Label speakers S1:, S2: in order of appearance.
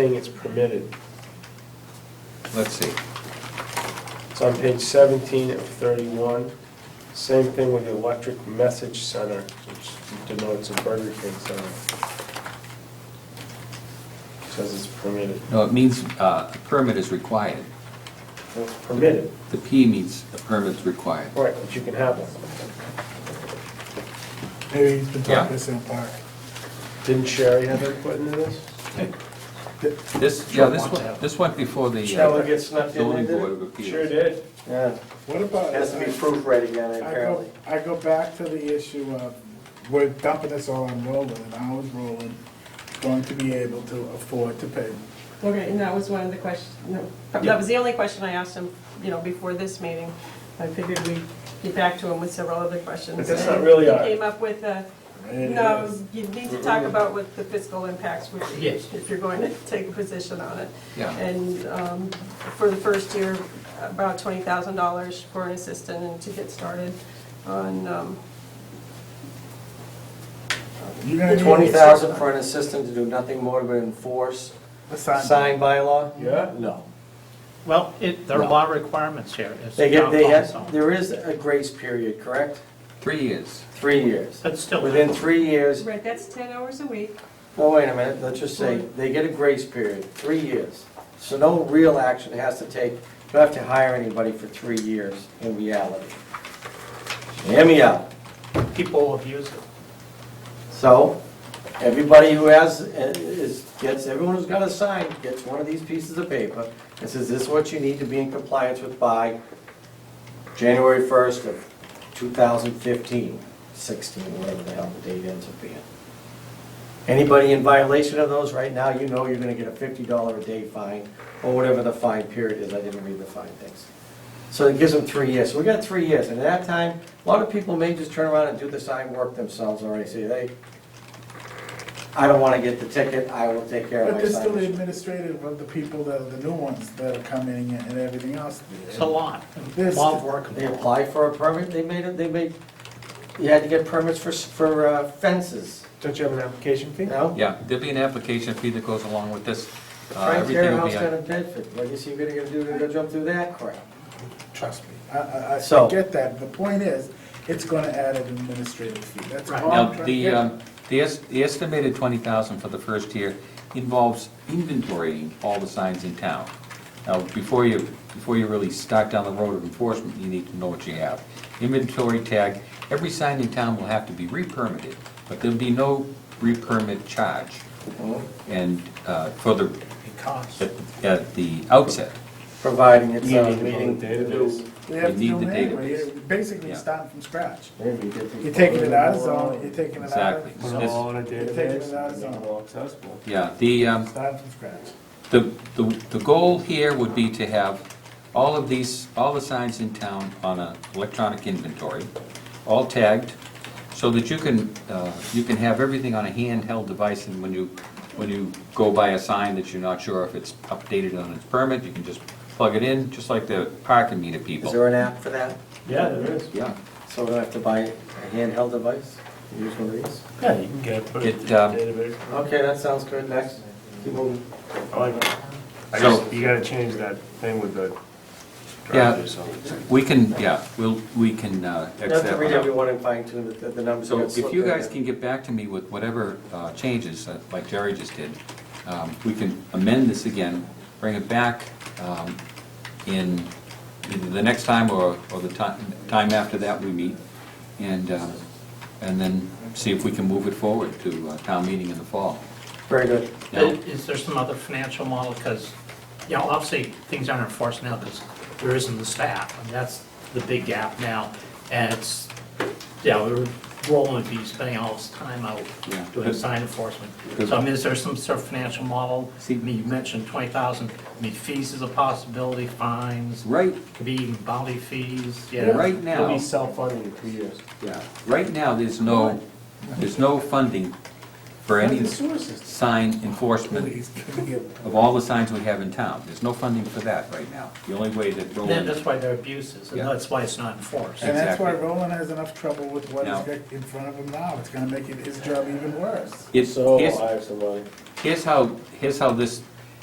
S1: saying it's permitted.
S2: Let's see.
S1: It's on page 17 of 31. Same thing with the electric message center, which denotes a Burger King center. Says it's permitted.
S2: No, it means uh, a permit is required.
S1: Well, It's permitted,
S2: The P means a permit's required.
S1: right, but you can have one.
S3: Maybe he's been
S2: Yeah.
S3: talking to St. Park.
S1: Didn't Sherry have input into this?
S2: This, yeah, this one, this one before the
S1: That one
S2: uh,
S1: gets snuck in there,
S2: zoning board
S1: did
S2: of
S1: it? Sure
S2: appeals.
S1: did.
S4: Yeah,
S3: What about? uh,
S4: has to be proofread again,
S3: I
S4: apparently.
S3: go, I go back to the issue of, we're dumping this all on Roland, and how is Roland going to be able to afford to pay?
S5: Okay, and that was one of the questions, that was the only question I asked him, you know, before this meeting. I figured we'd get back to him with several other questions.
S1: But that's not really our- uh,
S5: He came up with a,
S3: It
S5: no,
S3: is-
S5: you need to talk about what the fiscal impacts would be if you're going to take a position on it.
S2: Yeah,
S5: And um, for the first year, about $20,000 for an assistant and to get started on, um,
S3: You're gonna need.
S4: Twenty thousand for an assistant to do nothing more but enforce
S3: a sign.
S4: sign bylaw?
S1: Yeah?
S4: No.
S6: Well, it, there are law requirements here. It's
S4: They
S6: a
S4: get,
S6: town
S4: they
S6: council.
S4: have, there is a grace period, correct?
S2: three years.
S4: Three years.
S6: That's still.
S4: Within three years,
S5: right, that's 10 hours a week.
S4: no, wait a minute, let's just say, they get a grace period, three years. So no real action has to take, you don't have to hire anybody for three years in reality. Hear me out.
S6: People abuse it.
S4: So, everybody who has, uh, is, gets, everyone who's got a sign gets one of these pieces of paper and says, this is what you need to be in compliance with by January first of 2015, 16, whatever the hell the date ends up being. Anybody in violation of those right now, you know you're gonna get a fifty dollar a day fine, or whatever the fine period is, I didn't read the fine things. So it gives them three years, so we got three years, and at that time, a lot of people may just turn around and do the sign work themselves already, say, hey, I don't wanna get the ticket, I will take care of
S3: But
S4: my
S3: there's still the
S4: sign.
S3: administrative of the people that are the new ones that are coming in and everything else.
S6: It's a lot, a
S3: There's-
S6: lot of work.
S4: They apply for a permit, they made it, they made, you had to get permits for, s- for uh, fences,
S1: Don't you have an application fee?
S4: you know?
S2: Yeah, there'll be an application fee that goes along with this. Uh,
S4: Frank
S2: Everything will
S4: Fairhouse
S2: be
S4: down
S2: on.
S4: in Bedford, what is he gonna do to go jump through that crap?
S3: Trust me. I, I, I
S4: So-
S3: get that, the point is, it's gonna add an administrative fee, that's all
S6: Right.
S3: I'm
S2: Now,
S3: trying to
S2: the,
S3: get.
S2: um, the es- the estimated 20,000 for the first year involves inventorying all the signs in town. Now, before you, before you really start down the road of enforcement, you need to know what you have. Inventory tag, every sign in town will have to be re-permitted, but there'll be no re-permit charge. And uh, for the,
S6: It costs.
S2: at at the outset,
S4: Providing it's uh,
S1: You
S4: a
S1: need to
S4: meeting.
S1: build a database.
S3: They have to
S2: you
S3: do
S2: need
S3: it
S2: the
S3: anyway,
S2: database.
S3: You're basically
S2: Yeah.
S3: starting from scratch. You're
S4: You're
S3: taking it out of zone, you're taking it out of.
S2: Exactly.
S1: Put them all in a database, and make them all accessible.
S2: yeah, the, um,
S3: Starting from scratch.
S2: The, the, the goal here would be to have all of these, all the signs in town on an electronic inventory, all tagged, so that you can, uh, you can have everything on a handheld device, and when you, when you go by a sign that you're not sure if it's updated on its permit, you can just plug it in, just like the parking meter
S4: Is
S2: people.
S4: there an app for that?
S1: Yeah, there is.
S2: Yeah,
S4: So we don't have to buy a handheld device? Use one of these?
S1: Yeah, you can get it uh, put
S2: It, um,
S1: database.
S4: Okay, that sounds good, next. Keep moving.
S1: I like it. I
S2: So-
S1: just, you gotta change that thing with the
S2: Yeah.
S1: drivers, so.
S2: we can, yeah, we'll, we can uh,
S4: You
S2: accept.
S4: have to read every one and fine tune the, the numbers.
S2: So
S4: that slip
S2: if you
S4: in
S2: guys
S4: there.
S2: can get back to me with whatever uh, changes, uh, like Jerry just did, um, we can amend this again, bring it back um, in either the next time or or the ti- time after that we meet, and, um, and then see if we can move it forward to uh, town meeting in the fall.
S4: Very good.
S2: Now-
S6: Is there some other financial model? Because, you know, obviously, things aren't enforced now because there isn't the staff. And that's the big gap now. And it's, you know, Roland would be spending all his time out
S2: Yeah.
S6: doing sign enforcement.
S2: Good.
S6: So I mean, is there some sort of financial model? I
S2: See-
S6: mean, you mentioned 20,000. I mean, fees is a possibility, fines.
S2: Right,
S6: Could be even bounty fees, yeah.
S2: right
S1: It'll be
S2: now,
S1: self-funding in two years.
S2: yeah, right now, there's no, there's no funding for any
S3: The sewer system.
S2: sign enforcement
S3: Please, can we get-
S2: of all the signs we have in town. There's no funding for that right now. The only way that
S6: Then
S2: Roland,
S6: that's why they're abuses, and
S2: Yeah.
S6: that's why it's not enforced.
S3: And that's why
S2: Exactly.
S3: Roland has enough trouble with what
S2: No.
S3: is in front of him now, it's gonna make it- his job even worse.
S2: it's,
S1: So
S2: here's,
S1: I have somebody.
S2: here's how, here's how this